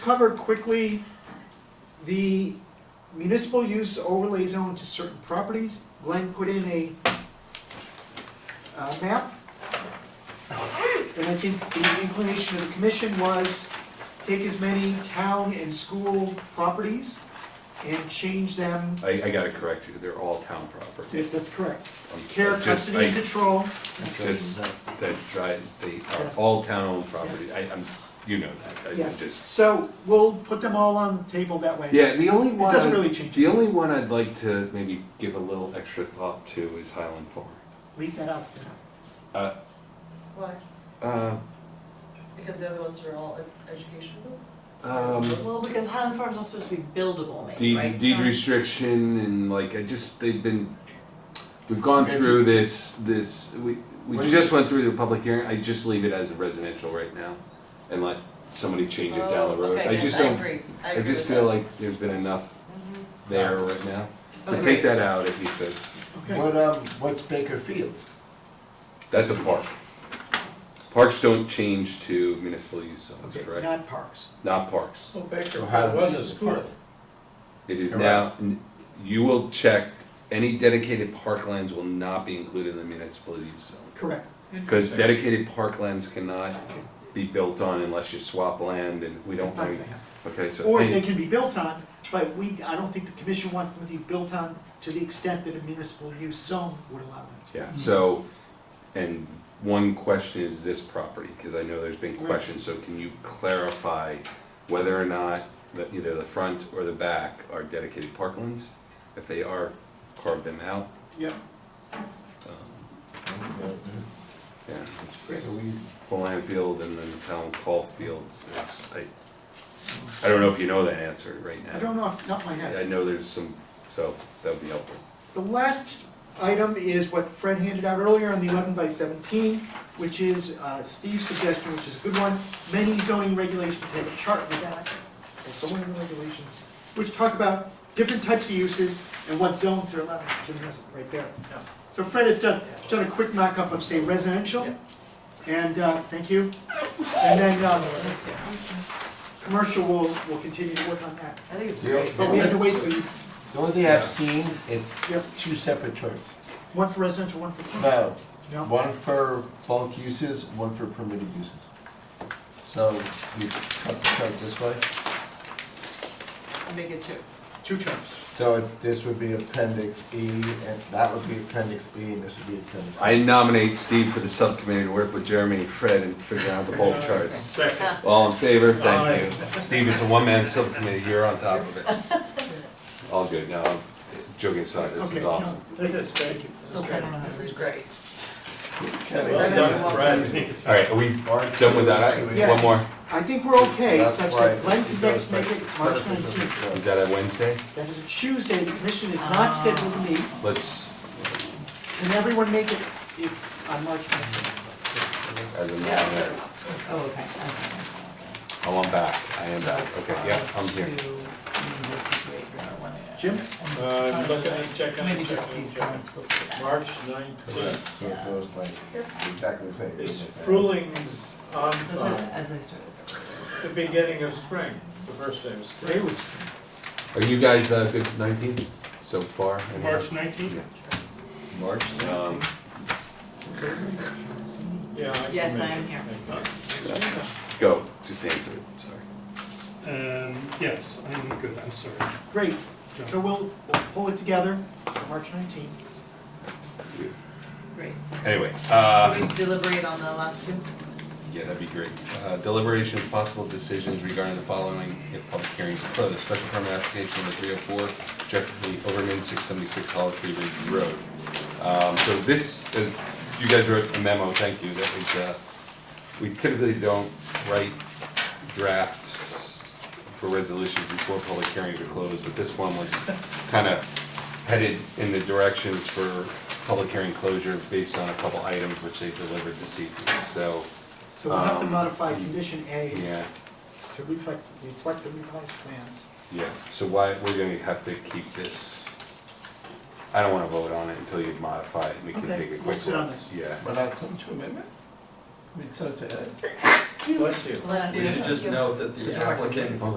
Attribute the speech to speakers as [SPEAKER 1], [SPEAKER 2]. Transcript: [SPEAKER 1] cover quickly the municipal use overlay zone to certain properties. Glenn put in a uh, map. And I think the inclination of the commission was take as many town and school properties and change them.
[SPEAKER 2] I, I gotta correct you, they're all town properties.
[SPEAKER 1] That's correct.
[SPEAKER 2] I'm-
[SPEAKER 1] Care,
[SPEAKER 2] I just-
[SPEAKER 1] custody, and
[SPEAKER 2] I-
[SPEAKER 1] control.
[SPEAKER 2] Just, that, dri- they are
[SPEAKER 1] Yes.
[SPEAKER 2] all town-owned property, I, I'm, you know that, I
[SPEAKER 1] Yeah.
[SPEAKER 2] I'm just.
[SPEAKER 1] So we'll put them all on the table that way.
[SPEAKER 2] Yeah, the only one,
[SPEAKER 1] doesn't really
[SPEAKER 2] I'd-
[SPEAKER 1] change
[SPEAKER 2] the
[SPEAKER 1] it.
[SPEAKER 2] only one I'd like to maybe give a little extra thought to is Highland Farm.
[SPEAKER 1] Leave that out for now.
[SPEAKER 2] Uh,
[SPEAKER 3] Why?
[SPEAKER 2] uh,
[SPEAKER 3] Because the other ones are all ed- educational?
[SPEAKER 2] um,
[SPEAKER 4] Well, because Highland Farm's not supposed to be buildable, maybe, right?
[SPEAKER 2] deed, deed
[SPEAKER 4] Um,
[SPEAKER 2] restriction and like, I just, they've been, we've gone through this, this, we, we
[SPEAKER 1] What do you-
[SPEAKER 2] just went through the public hearing, I just leave it as residential right now and let somebody change it down
[SPEAKER 3] Oh,
[SPEAKER 2] the road.
[SPEAKER 3] okay,
[SPEAKER 2] I
[SPEAKER 3] yes,
[SPEAKER 2] just
[SPEAKER 3] I
[SPEAKER 2] don't,
[SPEAKER 3] agree, I
[SPEAKER 2] I
[SPEAKER 3] agree
[SPEAKER 2] just
[SPEAKER 3] with
[SPEAKER 2] feel
[SPEAKER 3] that.
[SPEAKER 2] like there's been enough
[SPEAKER 3] Mhm.
[SPEAKER 2] there right now. So
[SPEAKER 3] Agreed.
[SPEAKER 2] take that out if you could.
[SPEAKER 1] Okay.
[SPEAKER 5] What, um, what's Baker Field?
[SPEAKER 2] That's a park. Parks don't change to municipal use zones,
[SPEAKER 1] Okay,
[SPEAKER 2] correct?
[SPEAKER 1] Not parks.
[SPEAKER 2] Not parks.
[SPEAKER 6] So Baker
[SPEAKER 5] Highland
[SPEAKER 6] was a
[SPEAKER 5] Field
[SPEAKER 6] school.
[SPEAKER 5] Park.
[SPEAKER 2] It is
[SPEAKER 5] Correct.
[SPEAKER 2] now, n- you will check, any dedicated parklands will not be included in the municipal use zone.
[SPEAKER 1] Correct.
[SPEAKER 2] Because
[SPEAKER 6] Interesting.
[SPEAKER 2] dedicated parklands cannot be built on unless you swap land and we don't
[SPEAKER 1] It's not
[SPEAKER 2] want,
[SPEAKER 1] gonna happen.
[SPEAKER 2] okay, so.
[SPEAKER 1] Or
[SPEAKER 2] any-
[SPEAKER 1] they can be built on, but we, I don't think the commission wants them to be built on to the extent that a municipal use zone would allow them to.
[SPEAKER 2] Yeah, so, and one question is this property, because I know there's been
[SPEAKER 1] Right.
[SPEAKER 2] questions, so can you clarify whether or not that either the front or the back are dedicated parklands? If they are, carve them out.
[SPEAKER 1] Yep.
[SPEAKER 2] Um, Yeah, it's
[SPEAKER 1] Great.
[SPEAKER 5] So easy.
[SPEAKER 2] Poland Field and then the town call fields, there's, I, I don't know if you know that answer right now.
[SPEAKER 1] I don't know off the top of my
[SPEAKER 2] I
[SPEAKER 1] head.
[SPEAKER 2] I know there's some, so that would be helpful.
[SPEAKER 1] The last item is what Fred handed out earlier on the eleven by seventeen, which is uh, Steve's suggestion, which is a good one. Many zoning regulations have a chart in the back, or zoning regulations, which talk about different types of uses and what zones are allowed, Jim has it right there. So Fred has done, done a quick mock-up of, say, residential, and, uh, thank you. And then, um, commercial, we'll, we'll continue to work on that.
[SPEAKER 3] I think it's
[SPEAKER 5] Yeah.
[SPEAKER 3] great.
[SPEAKER 1] But we had to wait till, you-
[SPEAKER 5] The only thing I've seen, it's
[SPEAKER 1] Yep.
[SPEAKER 5] two separate charts.
[SPEAKER 1] one for residential, one for commercial.
[SPEAKER 5] No,
[SPEAKER 1] No?
[SPEAKER 5] one for bulk uses, one for permitted uses. So you cut the chart this way,
[SPEAKER 3] I'll Make it two.
[SPEAKER 1] Two charts.
[SPEAKER 5] so it's, this would be appendix E, and that would be appendix B, and this would be appendix.
[SPEAKER 2] I nominate Steve for the subcommittee to work with Jeremy and Fred and figure out the bulk charts.
[SPEAKER 6] Second.
[SPEAKER 2] All in favor? Thank you. Steve, it's a one-man subcommittee, you're on top of it. All good, no, I'm joking aside, this
[SPEAKER 1] Okay,
[SPEAKER 2] is
[SPEAKER 1] no.
[SPEAKER 2] awesome.
[SPEAKER 6] Take this, thank you.
[SPEAKER 1] Okay.
[SPEAKER 3] This is great.
[SPEAKER 6] Well done, Brad.
[SPEAKER 2] All right, are we done with that?
[SPEAKER 1] Yeah.
[SPEAKER 2] One more,
[SPEAKER 1] I think we're okay,
[SPEAKER 5] That's
[SPEAKER 1] such
[SPEAKER 5] why
[SPEAKER 1] that Glenn
[SPEAKER 5] it
[SPEAKER 1] can next
[SPEAKER 5] goes
[SPEAKER 1] make
[SPEAKER 5] back
[SPEAKER 1] it
[SPEAKER 5] to
[SPEAKER 1] March
[SPEAKER 5] purpose of the
[SPEAKER 1] nineteenth.
[SPEAKER 5] chart.
[SPEAKER 2] is that a Wednesday?
[SPEAKER 1] That is a Tuesday, the commission is not scheduled to meet.
[SPEAKER 2] Let's,
[SPEAKER 1] Can everyone make it if, on March nineteenth?
[SPEAKER 2] as a matter,
[SPEAKER 3] Yeah.
[SPEAKER 4] Oh, okay, okay.
[SPEAKER 2] oh, I'm back, I am back, uh, okay, yeah,
[SPEAKER 4] um,
[SPEAKER 2] I'm here.
[SPEAKER 1] Jim?
[SPEAKER 6] Uh, look, I check on it,
[SPEAKER 4] Maybe
[SPEAKER 6] check
[SPEAKER 4] just
[SPEAKER 6] on it,
[SPEAKER 4] these
[SPEAKER 6] check on it.
[SPEAKER 4] columns will fit that.
[SPEAKER 6] March
[SPEAKER 5] Correct,
[SPEAKER 6] nineteenth,
[SPEAKER 5] so it goes like exactly the same.
[SPEAKER 6] it's Frulings on
[SPEAKER 4] That's what,
[SPEAKER 6] Thumb,
[SPEAKER 4] as I started.
[SPEAKER 6] the beginning of spring, the first day of
[SPEAKER 1] Today
[SPEAKER 6] spring.
[SPEAKER 1] was,
[SPEAKER 2] Are you guys, uh, good nineteen so far?
[SPEAKER 6] March nineteenth?
[SPEAKER 5] March.
[SPEAKER 2] Um,
[SPEAKER 6] Yeah. I can
[SPEAKER 4] Yes, I
[SPEAKER 6] make
[SPEAKER 4] am
[SPEAKER 6] it.
[SPEAKER 4] here.
[SPEAKER 6] Thank you.
[SPEAKER 2] go, just answer it, sorry.
[SPEAKER 7] Um, yes, I'm good, I'm sorry.
[SPEAKER 1] great. So we'll, we'll pull it together, March nineteenth.
[SPEAKER 4] Great.
[SPEAKER 2] Anyway, uh.
[SPEAKER 4] Should we deliberate on the last two?
[SPEAKER 2] Yeah, that'd be great. Uh, Deliberation of possible decisions regarding the following if public hearings are closed. Special permit application number three oh four, Jeffrey Overman, six seventy-six Hollow Tree Ridge Road. Um, so this is, you guys wrote a memo, thank you, that was, uh, we typically don't write drafts for resolutions before public hearings are closed, but this one was kinda headed in the directions for public hearing closure based on a couple items which they delivered this evening, so,
[SPEAKER 1] So we'll have to
[SPEAKER 2] Um,
[SPEAKER 1] modify condition A
[SPEAKER 2] yeah.
[SPEAKER 1] to reflect, reflect the revised plans.
[SPEAKER 2] Yeah, so why, we're gonna have to keep this, I don't wanna vote on it until you modify it, and we can
[SPEAKER 1] Okay,
[SPEAKER 2] take a quick look.
[SPEAKER 1] we'll sit on this.
[SPEAKER 2] Yeah.
[SPEAKER 5] Without subject amendment? I mean, subject.
[SPEAKER 6] Bless you.
[SPEAKER 4] Last
[SPEAKER 8] You should just note that the
[SPEAKER 5] Yeah.
[SPEAKER 8] applicant
[SPEAKER 2] Hold on.